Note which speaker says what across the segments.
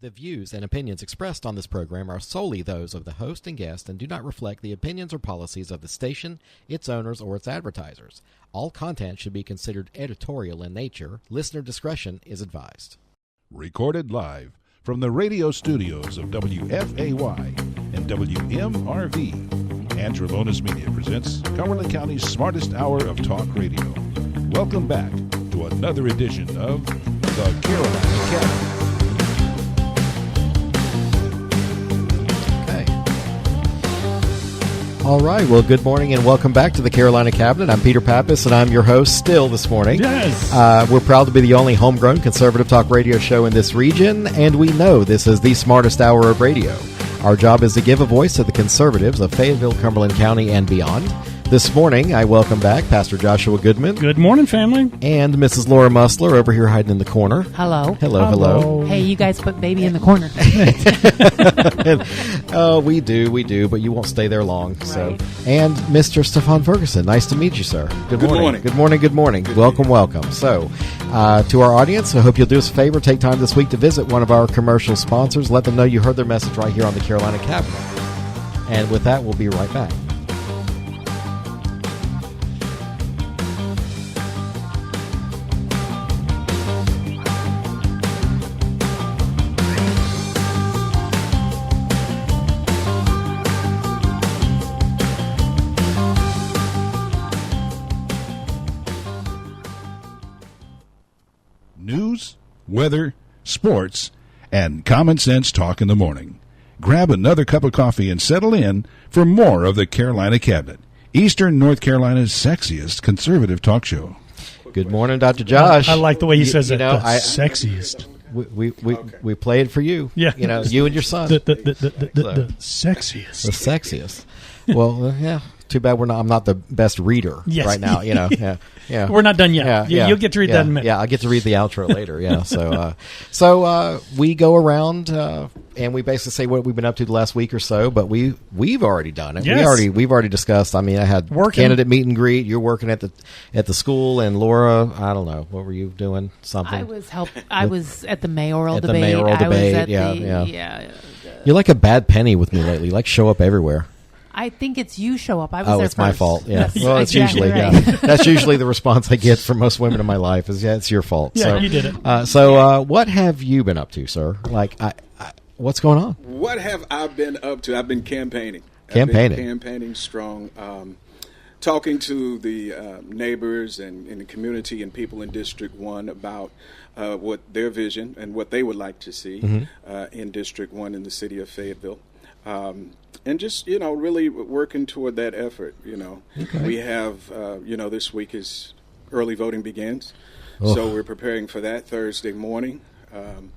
Speaker 1: The views and opinions expressed on this program are solely those of the host and guest and do not reflect the opinions or policies of the station, its owners, or its advertisers. All content should be considered editorial in nature. Listener discretion is advised.
Speaker 2: Recorded live from the radio studios of WFAY and WMRV, Angelona's Media presents Cumberland County's smartest hour of talk radio. Welcome back to another edition of the Carolina Cabinet.
Speaker 1: Okay. All right. Well, good morning and welcome back to the Carolina Cabinet. I'm Peter Pappas and I'm your host still this morning.
Speaker 2: Yes.
Speaker 1: Uh, we're proud to be the only homegrown conservative talk radio show in this region, and we know this is the smartest hour of radio. Our job is to give a voice to the conservatives of Fayetteville, Cumberland County, and beyond. This morning, I welcome back Pastor Joshua Goodman
Speaker 3: Good morning, family.
Speaker 1: and Mrs. Laura Musler over here hiding in the corner.
Speaker 4: Hello.
Speaker 1: Hello, hello.
Speaker 4: Hey, you guys put baby in the corner.
Speaker 1: Oh, we do, we do, but you won't stay there long. So,
Speaker 4: Right.
Speaker 1: and Mr. Stefan Ferguson, nice to meet you, sir. Good, morning.
Speaker 5: morning.
Speaker 1: Good morning. Good morning. welcome, welcome. So, uh, to our audience, I hope you'll do us a favor. Take time this week to visit one of our commercial sponsors. Let them know you heard their message right here on the Carolina Cabinet. And with that, we'll be right back.
Speaker 2: news, weather, sports, and common sense talk in the morning. Grab another cup of coffee and settle in for more of the Carolina Cabinet, Eastern North Carolina's sexiest conservative talk show.
Speaker 1: Good morning, Dr. Josh.
Speaker 3: I like the way he
Speaker 1: You-
Speaker 3: says
Speaker 1: you
Speaker 3: it.
Speaker 1: know,
Speaker 3: the
Speaker 1: I-
Speaker 3: sexiest.
Speaker 1: We we, we, we play it for you.
Speaker 3: Yeah.
Speaker 1: you know, you and your son.
Speaker 3: The, the, the, the, the, the, the
Speaker 1: the
Speaker 3: sexiest.
Speaker 1: sexiest. well, uh, yeah. Too bad we're not. I'm not the best reader
Speaker 3: Yes.
Speaker 1: right now. You know. Yeah. Yeah.
Speaker 3: We're not done yet. You- you'll get to read
Speaker 1: yeah,
Speaker 3: that in a minute.
Speaker 1: Yeah, I'll get to read the outro later. Yeah. So, uh, so uh, we go around uh, and we basically say what we've been up to the last week or so. But we we've already done it. We
Speaker 3: Yes.
Speaker 1: already we've already discussed. I mean, I had
Speaker 3: Working.
Speaker 1: candidate meet and greet. You're working at the at the school, and Laura. I don't know what were you doing. Something.
Speaker 4: I was help. I was at the mayoral
Speaker 1: At the
Speaker 4: debate.
Speaker 1: mayoral
Speaker 4: I
Speaker 1: debate,
Speaker 4: was at
Speaker 1: yeah,
Speaker 4: the,
Speaker 1: yeah.
Speaker 4: yeah.
Speaker 1: You're like a bad penny with me lately. You, Like show up everywhere.
Speaker 4: I think it's you show up. I was
Speaker 1: Oh,
Speaker 4: there
Speaker 1: it's my
Speaker 4: first.
Speaker 1: fault. Yeah.
Speaker 4: That's
Speaker 1: well, it's
Speaker 4: exactly
Speaker 1: usually
Speaker 4: right.
Speaker 1: yeah. That's usually the response I get from most women in my life is yeah, it's your fault.
Speaker 3: Yeah,
Speaker 1: so,
Speaker 3: you did it.
Speaker 1: Uh, so, uh, what have you been up to, sir? Like, I, I, what's going on?
Speaker 5: What have I been up to? I've been campaigning. I've
Speaker 1: Campaigning.
Speaker 5: been campaigning strong. Um, talking to the uh, neighbors and, and the community and people in District 1 about uh, what their vision and what they would like to see uh, in District 1 in the city of Fayetteville. Um, and just, you know, really working toward that effort, you know. We have, uh, you know, this week is early voting begins. So we're preparing for that Thursday morning. Um,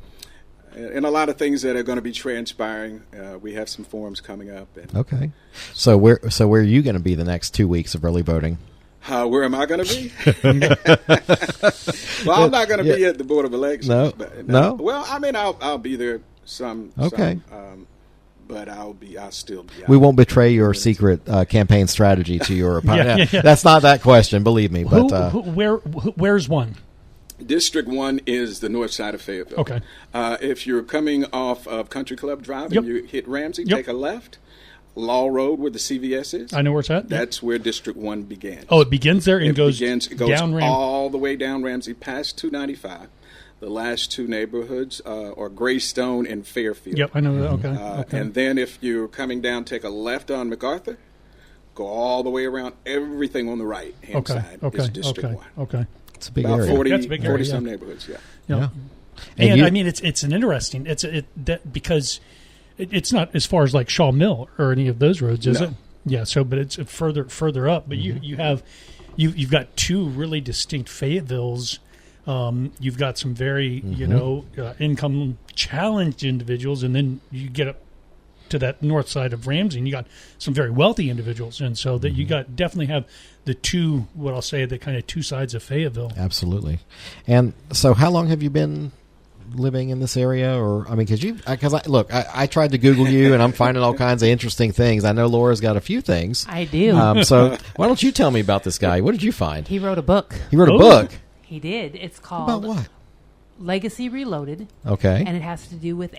Speaker 5: and and a lot of things that are going to be transpiring. Uh, we have some forums coming up. And,
Speaker 1: Okay. So where so where are you going to be the next two weeks of early voting?
Speaker 5: uh, where am I going to be? well, I'm not going to be
Speaker 1: Yeah.
Speaker 5: at the Board of Elections. uh,
Speaker 1: No. No?
Speaker 5: Well, I mean, I'll, I'll be there some.
Speaker 1: Okay.
Speaker 5: Some, um, but I'll be, I'll still be out.
Speaker 1: We won't betray your secret uh, campaign strategy to your opponent.
Speaker 3: Yeah, yeah, yeah.
Speaker 1: That's not that question, believe me.
Speaker 3: Who,
Speaker 1: But uh,
Speaker 3: who, where, who, where's one?
Speaker 5: District 1 is the north side of Fayetteville.
Speaker 3: Okay.
Speaker 5: Uh, if you're coming off of Country Club Drive
Speaker 3: Yep.
Speaker 5: and you hit Ramsey,
Speaker 3: Yep.
Speaker 5: take a left. Law Road, where the CVS is.
Speaker 3: I know where it's at.
Speaker 5: That's where District 1 began.
Speaker 3: oh, it begins there and
Speaker 5: it
Speaker 3: goes,
Speaker 5: begins, it goes
Speaker 3: down ramp.
Speaker 5: all the way down Ramsey past 295. The last two neighborhoods uh, are Greystone and Fairfield.
Speaker 3: Yep, I know that. Okay.
Speaker 5: Uh,
Speaker 3: okay.
Speaker 5: And then if you're coming down, take a left on MacArthur, go all the way around. Everything on the right hand
Speaker 3: okay.
Speaker 5: side
Speaker 3: Okay.
Speaker 5: is District
Speaker 3: Okay.
Speaker 5: 1.
Speaker 3: Okay.
Speaker 1: it's a big
Speaker 5: About
Speaker 1: area.
Speaker 5: 40,
Speaker 3: That's a big
Speaker 5: 40
Speaker 3: area,
Speaker 5: some
Speaker 3: yeah.
Speaker 5: neighborhoods, yeah.
Speaker 3: Yeah.
Speaker 1: Yeah.
Speaker 3: And,
Speaker 1: you-
Speaker 3: I mean, it's it's an interesting. It's it that because it, it's not as far as like Shaw Mill or any of those roads, is
Speaker 5: No.
Speaker 3: it? Yeah. So, but it's further further up. But you you have you you've got two really distinct Fayettevilles. Um, you've got some very you know uh, income challenged individuals, and then you get up to that north side of Ramsey, and you got some very wealthy individuals, and so that you got definitely have the two what I'll say the kind of two sides of Fayetteville.
Speaker 1: Absolutely. And so, how long have you been living in this area? Or I mean, because you, because I look, I, I tried to Google you, and I'm finding all kinds of interesting things. I know Laura's got a few things.
Speaker 4: I do.
Speaker 1: Um, so, why don't you tell me about this guy? What did you find?
Speaker 4: he wrote a book.
Speaker 1: He wrote a
Speaker 3: Oh.
Speaker 1: book
Speaker 4: He did. It's
Speaker 1: about
Speaker 4: called
Speaker 1: what?
Speaker 4: Legacy Reloaded,
Speaker 1: Okay.
Speaker 4: and it has to do with